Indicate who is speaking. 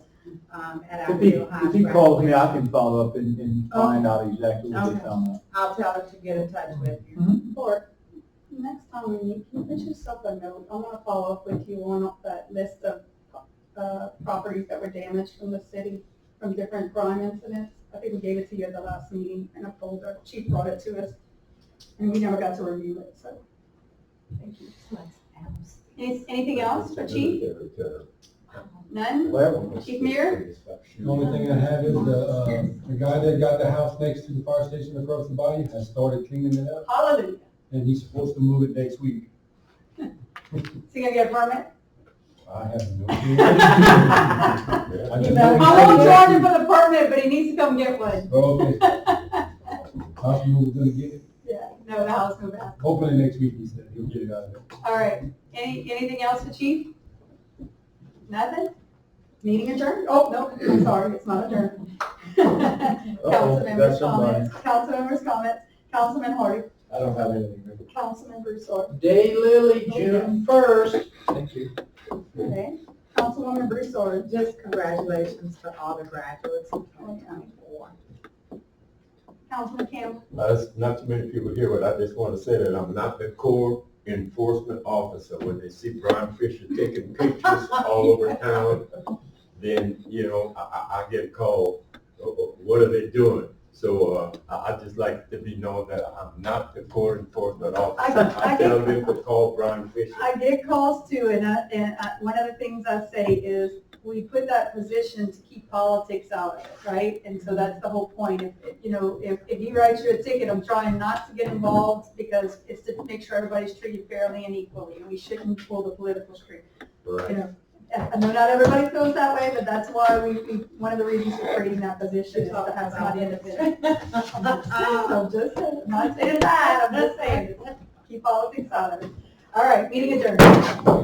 Speaker 1: um, at our
Speaker 2: If he,
Speaker 1: new high.
Speaker 2: if he
Speaker 1: track.
Speaker 2: calls me, I can follow up and, and
Speaker 1: Okay.
Speaker 3: Oh.
Speaker 2: find out exactly what
Speaker 1: Okay.
Speaker 2: it's on.
Speaker 1: I'll tell her to get in touch with you.
Speaker 2: Mm-hmm.
Speaker 3: Or, next time we meet, can you put yourself a note? I want to follow up with you on that list of, uh, properties that were damaged from the city from different crime incidents. I think we gave it to you at the last meeting in a folder. Chief brought it to us, and we never got to review it, so, thank you. Any- Anything else for Chief? None? Chief Muir?
Speaker 4: The only thing I have is the, uh, the guy that got the house next to the fire station across the body has started cleaning it up,
Speaker 3: Hallelujah.
Speaker 4: and he's supposed to move it next week.
Speaker 3: Is he gonna get a permit?
Speaker 4: I have no idea. I just know he's-
Speaker 3: I won't charge him for the permit, but he needs to come get one.
Speaker 4: Oh, Okay. House move, gonna get it,
Speaker 3: Yeah, no, the house move out.
Speaker 4: hopefully next week, he said, he'll get it out of there.
Speaker 3: All right, any, anything else for chief? Nothing? Meeting adjourned? Oh, no, I'm sorry, it's not adjourned. Council members' comments, council members' comments, Councilman Hardy,
Speaker 4: I don't have anything.
Speaker 3: Councilman Broussard,
Speaker 2: Day Lily, first.
Speaker 4: Thank you.
Speaker 3: okay? Councilwoman Broussard,
Speaker 1: Just congratulations to all the graduates in 2024.
Speaker 3: Councilman Campbell,
Speaker 5: Uh, it's not too many people here, but I just want to say that I'm not the core enforcement officer. When they see Brian Fisher taking pictures all over town, then, you know, I, I, I get called, "Oh, oh, what are they doing? So, uh, I, I just like to be known that I'm not the core enforcement officer.
Speaker 3: I- I
Speaker 5: I tell them to call Brian Fisher.
Speaker 3: I get calls too, and I, and I, one of the things I say is, we put that position to keep politics out of it, right? And so that's the whole point, if, if, you know, if, if he writes you a ticket, I'm trying not to get involved, because it's to make sure everybody's treated fairly and equally, and we shouldn't pull the political string, you
Speaker 5: Right.
Speaker 3: know? I know not everybody feels that way, but that's why we, we, one of the reasons we're creating that position is to have somebody in the middle. I'm just saying, I'm not saying that, I'm just saying, keep politics out of it. All right, meeting adjourned.